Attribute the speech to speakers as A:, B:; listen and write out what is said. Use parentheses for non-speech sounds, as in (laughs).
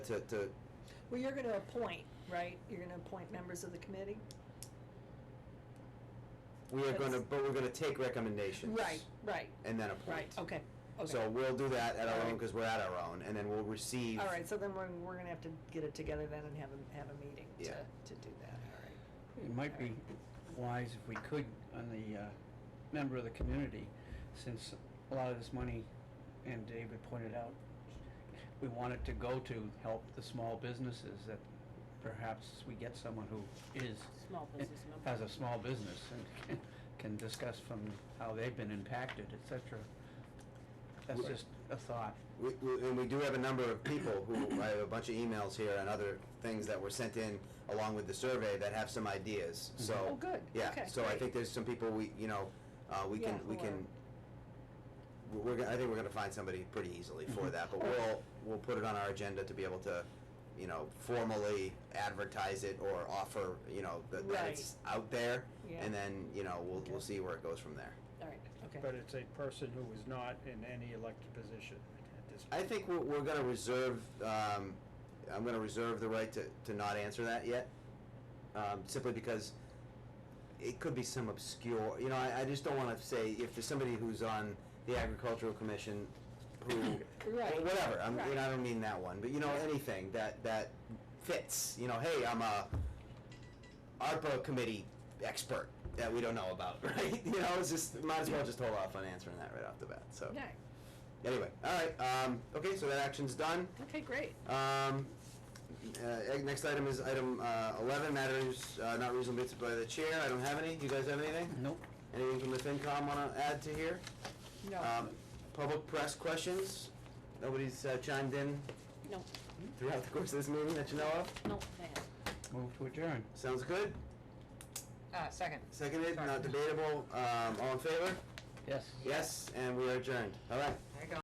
A: to, to,
B: Well, you're going to appoint, right? You're going to appoint members of the committee?
A: we are gonna,
B: That's-
A: but we're gonna take recommendations.
B: Right, right,
A: And then appoint.
B: right, okay, okay.
A: So we'll do that at our
B: All
A: own,
B: right.
A: because we're at our own, and then we'll receive.
B: All right, so then we're, we're going to have to get it together then and have a, have a meeting
A: Yeah.
B: to, to do that, all right.
C: It might be wise if we could, on the uh, member of the community, since a lot of this money, and David pointed out, we want it to go to help the small businesses, that perhaps we get someone who is.
D: Small business member.
C: Has a small business and can- can discuss from how they've been impacted, et cetera. That's
A: Right.
C: just a thought.
A: We, we- and we do have a number of people who, I have a bunch of emails here and other things that were sent in along with the survey that have some ideas, so.
B: Oh, good.
A: Yeah,
B: Okay,
A: so I
B: great.
A: think there's some people we, you know, uh, we
B: Yeah,
A: can, we
B: who
A: can, we're, we're gonna- I think we're gonna find somebody pretty easily for that, but we'll, we'll put it on our agenda to be able to, you know, formally advertise it or offer, you know, that, that
B: Right.
A: it's out there.
B: Yeah.
A: And then, you know, we'll,
B: Okay.
A: we'll see where it goes from there.
B: All right,
E: But
B: okay.
E: it's a person who is not in any elected position at this point.
A: I think we're, we're gonna reserve, um, I'm gonna reserve the right to, to not answer that yet, um, simply because it could be some obscure, you know, I, I just don't wanna say, if there's somebody who's on the agricultural commission who,
B: (coughs) Right.
A: whatever, I'm, you
B: Right.
A: know, I don't mean that one, but you know, anything that, that fits, you know, hey, I'm a ARPA committee expert that we don't know about, (laughs) right? You know, it's just, might as well just hold off on answering that right off the bat, so.
B: Yeah,
A: Anyway, all right. Um, okay, so that action's done.
B: okay, great.
A: Um, uh, next item is item uh, 11, matters uh, not reasonably anticipated by the chair. I don't have any. You guys have anything?
C: Nope.
A: Anything from the FinCom want to add to here?
B: No,
A: Um, public press questions. Nobody's uh, chimed in
D: No,
A: throughout the course of this meeting that you know of.
D: no, they have.
C: Move to adjourn.
A: Sounds good.
F: Uh, second.
A: Seconded, not debatable. Um, all in favor?
C: Yes.
A: Yes, and we are adjourned. All right.
F: There you go.